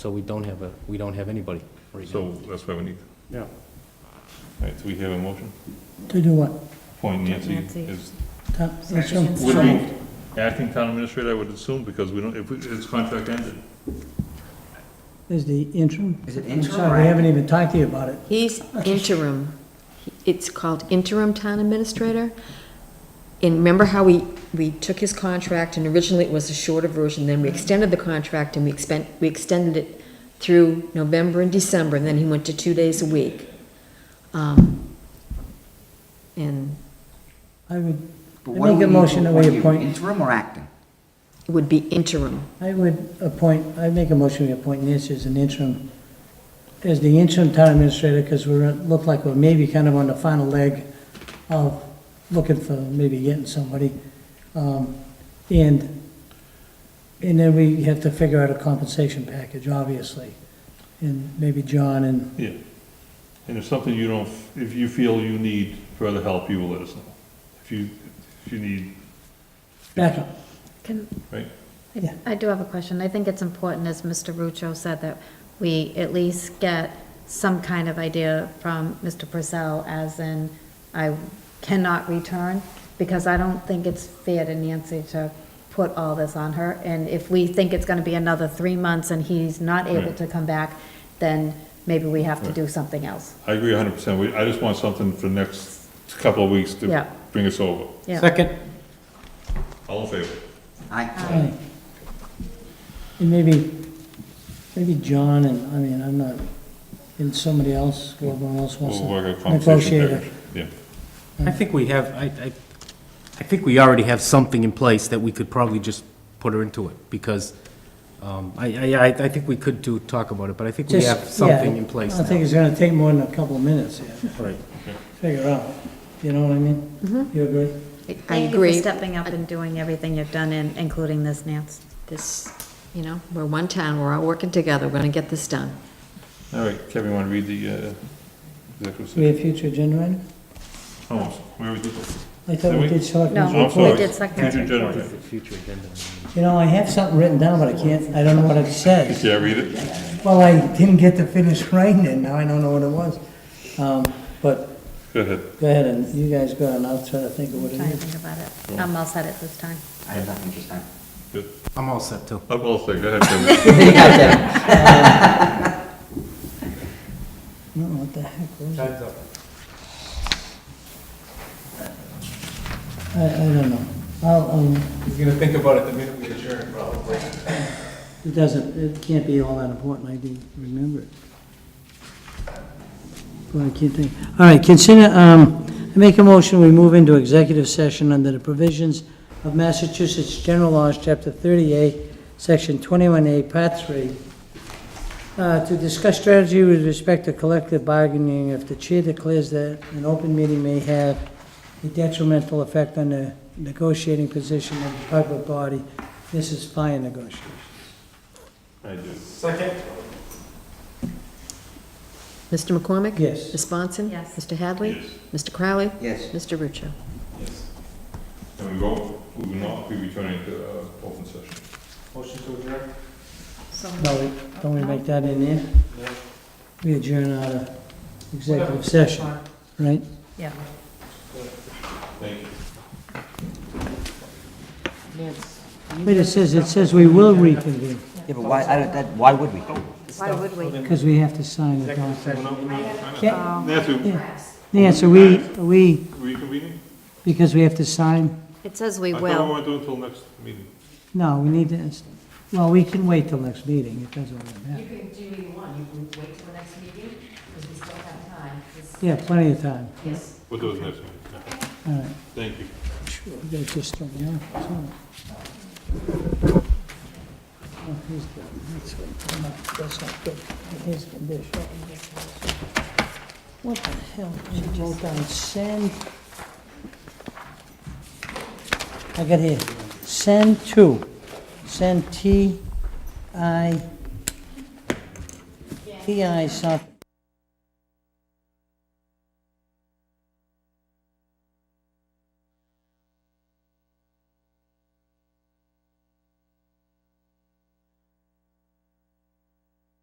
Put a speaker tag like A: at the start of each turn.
A: So we don't have a, we don't have anybody right now.
B: So that's why we need,
C: Yeah.
B: all right, so we have a motion,
D: To do what?
B: point Nancy
E: Nancy.
B: is,
D: Tom, let's
E: Sorry.
D: go.
B: would be acting town administrator, I would assume, because we don't, if we- it's contract ended.
D: Is the interim?
F: Is it
D: I'm
F: interim
D: sorry,
F: or-
D: we haven't even talked to you about it.
E: He's interim. It's called interim town administrator. And remember how we, we took his contract and originally it was a shorter version, then we extended the contract and we expend, we extended it through November and December, and then he went to two days a week. Um, And
D: I would,
F: But
D: I
F: what do
D: make
F: we
D: a
F: need to
D: motion that we
F: appoint you,
D: appoint-
F: Interim or acting?
E: it would be interim.
D: I would appoint, I make a motion to appoint Nancy as an interim, as the interim town administrator, because we're, look like we're maybe kind of on the final leg of looking for, maybe getting somebody. Um, And, and then we have to figure out a compensation package, obviously. And maybe John and,
B: Yeah. And if something you don't, if you feel you need further help, you will let us know. If you, if you need,
D: backup.
G: Can,
B: right?
D: Yeah.
G: I do have a question. I think it's important, as Mr. Rucho said, that we at least get some kind of idea from Mr. Purcell, as in, I cannot return, because I don't think it's fair to Nancy to put all this on her. And if we think it's gonna be another three months and he's not able
B: Right.
G: to come back, then maybe we have to do something else.
B: I agree hundred percent, I just want something for the next couple of weeks to
G: Yeah.
B: bring us over.
G: Yeah.
D: Second.
B: All in favor?
F: I,
D: Aye. And maybe, maybe John and, I mean, I'm not, and somebody else, whoever else wants
B: We'll work a
D: to
B: compensation
D: negotiate
B: package.
D: it.
B: Yeah,
A: I think we have, I, I, I think we already have something in place that we could probably just put her into it, because, um, I, I, I, I think we could do, talk about it, but I think we
D: Just-
A: have
D: yeah,
A: something in place
D: I don't think
A: now.
D: it's gonna take more than a couple of minutes here to
A: Right.
D: figure out, you know what I mean? You agree?
E: I
G: Thank you for
E: agree.
G: stepping up and doing everything you've done, in- including this, Nance.
E: This, you know, we're one town, we're all working together, we're gonna get this done.
B: all right, Kevin, wanna read the, uh, executive
D: Do we
B: session?
D: have future agenda item?
B: Oh, where was it?
D: I thought we
B: Did we?
D: did select.
G: No,
B: I'm
D: ones
G: we
B: sorry.
D: before.
G: did second.
B: Future agenda.
A: Future agenda.
D: You know, I have something written down, but I can't, I don't know what it says.
B: Yeah, read it.
D: Well, I didn't get to finish writing it, now I don't know what it was. Um, but
B: Go ahead.
D: go ahead and, you guys go and I'll try to think of what
G: I'm
D: it
G: trying to
D: is.
G: think about it. I'm all set at this time.
F: I have nothing this time.
B: Good.
A: I'm all set too.
B: I'm all set, go ahead, Kevin.
D: No, what the heck was it? I, I don't know. I'll, um,
H: He's gonna think about it the minute we adjourn, probably.
D: it doesn't, it can't be all that important, I didn't remember it. Well, I can't think. All right, consider, um, I make a motion, we move into executive session under the provisions of Massachusetts General Laws, Chapter 38, Section 21A, Part 3, uh, to discuss strategy with respect to collective bargaining if the chair declares that an open meeting may have a detrimental effect on the negotiating position of the public body. This is fire negotiation.
B: I do.
H: Second?
E: Mr. McCormick?
D: Yes.
E: Ms. Swanson?
G: Yes.
E: Mr. Hadley?
B: Yes.
E: Mr. Crowley?
F: Yes.
E: Mr. Rucho?
H: Yes.
B: And we go, we will not be returning to, uh, open session.
H: Motion to adjourn?
D: No, we- don't we make that in there?
H: No.
D: We adjourn out of
H: Whatever.
D: executive session,
H: Fine.
D: right?
G: Yeah.
B: Thank you.
D: But it says, it says we will reconvene,
F: Yeah, but why, I don't- that, why would we?
G: Why would we?
D: because we have to sign the document.
B: No, no,
D: Yeah,
B: Nancy,
D: Nancy, we, we,
B: reconvening?
D: because we have to sign,
G: It says we
B: I thought we
G: will.
B: weren't doing it till next meeting.
D: no, we need to, well, we can wait till next meeting, it doesn't really matter.
E: can do either one, you can wait till the next meeting, because we still have time.
D: Yeah, plenty of time,
B: What was next meeting? Yeah.
D: all right.
B: Thank you.
D: Sure, we gotta just throw me off, it's all right. Oh, here's good, that's good, No, that's not good, here's the dish. What the hell, I wrote down send. I got here, send to, send T I, T I something.